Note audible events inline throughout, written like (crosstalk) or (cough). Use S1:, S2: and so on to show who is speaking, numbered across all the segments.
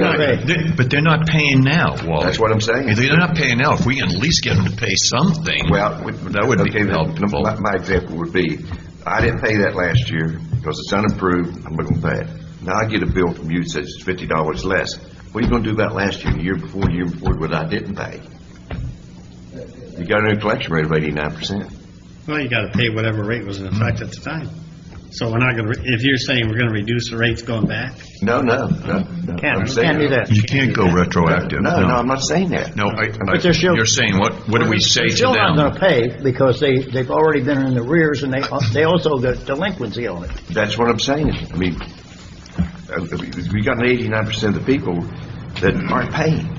S1: not
S2: pay.
S3: They're- But they're not paying now, Wally.
S1: That's what I'm saying.
S3: If They're not paying now. If we can at least get them to pay something,
S1: Well, we-
S3: that would be
S1: okay, then,
S3: helpful.
S1: My my example would be, I didn't pay that last year because it's unapproved, I'm not gonna pay it. Now I get a bill from you that says it's fifty dollars less. What are you gonna do about last year, the year before, the year before, what I didn't pay? You got a new collection rate of eighty-nine percent.
S2: Well, you gotta pay whatever rate was in effect at the time. So we're not gonna, re- if you're saying we're gonna reduce the rates going back,
S1: No, no, no, no. I'm saying-
S2: can't do that.
S3: You can't go retroactive,
S1: No, no, I'm
S3: no.
S1: not saying that.
S3: No, I,
S4: But they're still-
S3: I- you're saying, what, what do we say to
S4: Still not
S3: them?
S4: gonna pay, because they, they've already been in the rears, and they, they also got delinquency on it.
S1: That's what I'm saying. I mean, uh, we got an eighty-nine percent of the people that aren't paying,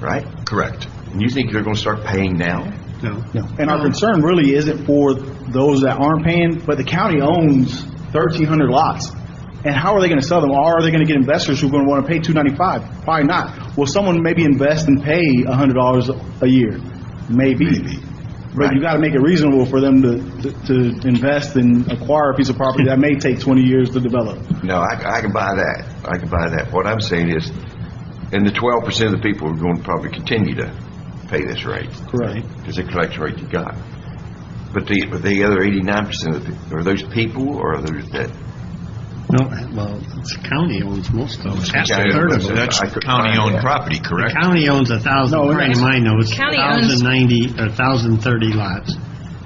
S1: right?
S3: Correct.
S1: And you think they're gonna start paying now?
S2: no?
S5: And our concern really isn't for those that aren't paying, but the county owns thirteen hundred lots. And how are they gonna sell them? Or are they gonna get investors who are gonna wanna pay two ninety-five? Probably not. Will someone maybe invest and pay a hundred dollars a year? Maybe. But you gotta make it reasonable for them to, to invest and acquire a piece of property that may take twenty years to develop.
S1: No, I, I can buy that. I can buy that. What I'm saying is, and the twelve percent of the people are going to probably continue to pay this rate,
S5: Correct.
S1: because the collection rate you got. But the, but the other eighty-nine percent of the, pe- are those people, or are those that?
S2: No, well, the county owns most of them. Half
S1: county
S2: a third of
S1: owns
S2: them.
S1: it.
S3: That's
S1: I could find
S3: county-owned
S1: that.
S3: property, correct?
S2: County owns a thousand,
S5: No,
S2: according to my notes,
S6: County owns-
S2: thousand ninety, or thousand thirty lots.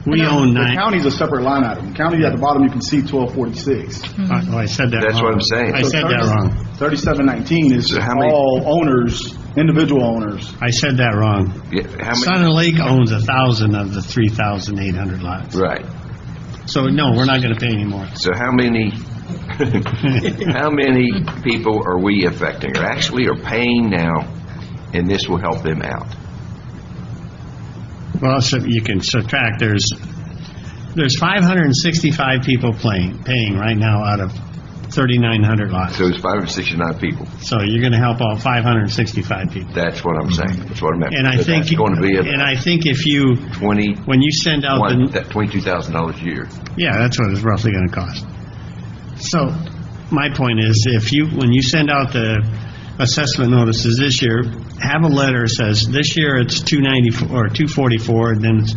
S2: We own
S5: The
S2: nine, oh,
S5: county's a separate line item. County at the bottom, you can see twelve forty-six.
S2: oh, I said that wrong.
S1: That's what I'm saying.
S2: I said that wrong.
S5: Thirty-seven nineteen is
S1: So how many-
S5: all owners, individual owners.
S2: I said that wrong.
S1: Yeah, how
S2: Sun
S1: many?
S2: and Lake owns a thousand of the three thousand eight hundred lots.
S1: Right.
S2: So, no, we're not gonna pay anymore.
S1: So how many, (laughs) how many people are we affecting, or actually are paying now, and this will help them out?
S2: Well, so you can subtract, there's, there's 565 people playing, paying right now out of 3,900 lots.
S1: So it's five hundred sixty-nine people.
S2: So you're going to help out 565 people.
S1: That's what I'm saying. That's what I meant.
S2: Mm-hmm. And I think,
S1: It's going to be
S2: and
S1: a
S2: I Oh, think if you,
S1: twenty,
S2: when you send out
S1: one,
S2: the,
S1: that twenty-two thousand dollars a year.
S2: yeah, that's what it's roughly going to cost. So my point is, if you, when you send out the assessment notices this year, have a letter that says, this year it's 294, or 244, and then, it's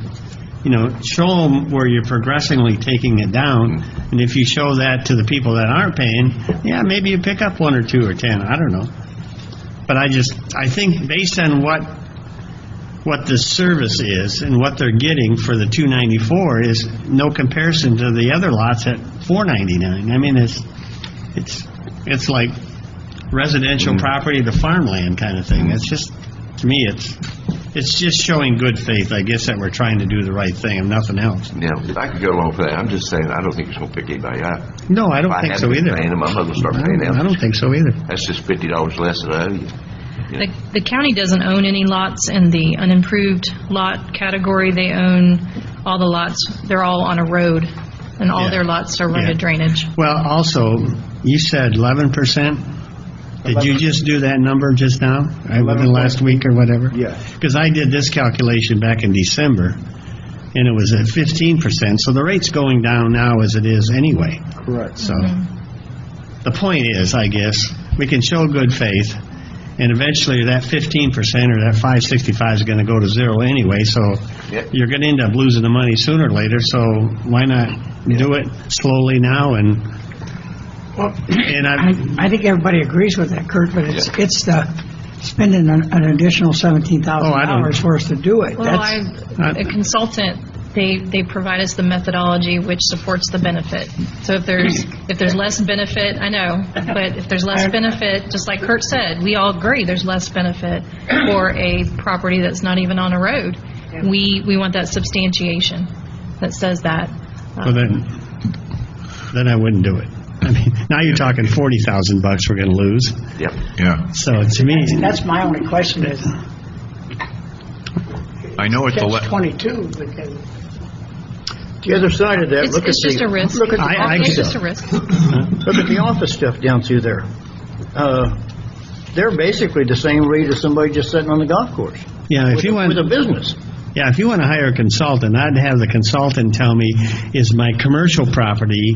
S2: you know, show them where you're progressively taking it down, and if you show that to the people that aren't paying, yeah, maybe you pick up one or two or 10, I don't know. But I just, I think based on what, what the service is and what they're getting for the 294 is no comparison to the other lots at 499. I mean, it's, it's, it's like residential property to farmland kind of thing. It's just, to me, it's, it's just showing good faith, I guess, that we're trying to do the right thing and nothing else.
S1: Now, I could go along with that. I'm just saying, I don't think it's going to pick anybody up.
S2: No, I
S1: If
S2: don't think so
S1: hadn't been
S2: either.
S1: Paying them, I'm not going to start
S2: I
S1: paying
S2: don't- I
S1: them.
S2: don't think so either.
S1: That's just fifty dollars less than I owe you.
S6: The the county doesn't own any lots in the unimproved lot category. They own all the lots, they're all on a road, and all their lots are
S2: Yeah.
S6: road drainage.
S2: Well, also, you said 11%? Did you just do that number just now, Uh, within last week or whatever?
S5: Yeah.
S2: Because I did this calculation back in December, and it was at 15%, so the rate's going down now as it is anyway.
S5: Correct.
S2: So, the point is, I guess, we can show good faith, and eventually that 15% or that 565 is going to go to zero anyway, so
S1: Yep.
S2: you're going to end up losing the money sooner or later, so why not do it slowly now and, and I,
S7: I, I think everybody agrees with that, Kurt, but it's, it's the spending an an additional seventeen thousand
S2: Oh, I don't-
S7: dollars for us to do it.
S6: Well,
S7: That's-
S6: I,
S2: I-
S6: a consultant, they, they provide us the methodology which supports the benefit. So if there's, if there's less benefit, I know, but if there's less benefit, just like Kurt said, we all agree there's less benefit for a property that's not even on a road. We, we want that substantiation that says that.
S2: well then, then I wouldn't do it. I mean, now you're talking 40,000 bucks we're going to lose,
S1: Yep.
S3: Yeah.
S2: so to me,
S7: That's my only question is,
S3: I know at the,
S7: catch
S3: le-
S7: twenty-two, because
S4: The other side of that,
S6: It's,
S4: look at
S6: it's just a
S4: the,
S6: risk.
S4: look at the
S2: I- I
S6: It's
S2: could-
S6: just a risk.
S4: Look at the office stuff down through there. Uh, They're basically the same rate as somebody just sitting on the golf course.
S2: yeah, if
S4: with
S2: you
S4: a-
S2: want...
S4: With a business.
S2: Yeah, if you want to hire a consultant, I'd have the consultant tell me, is my commercial property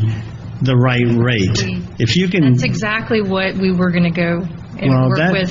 S2: the right rate? If you can,
S6: That's exactly what we were going to go and
S2: Mm. Well,
S6: work
S2: that-
S6: with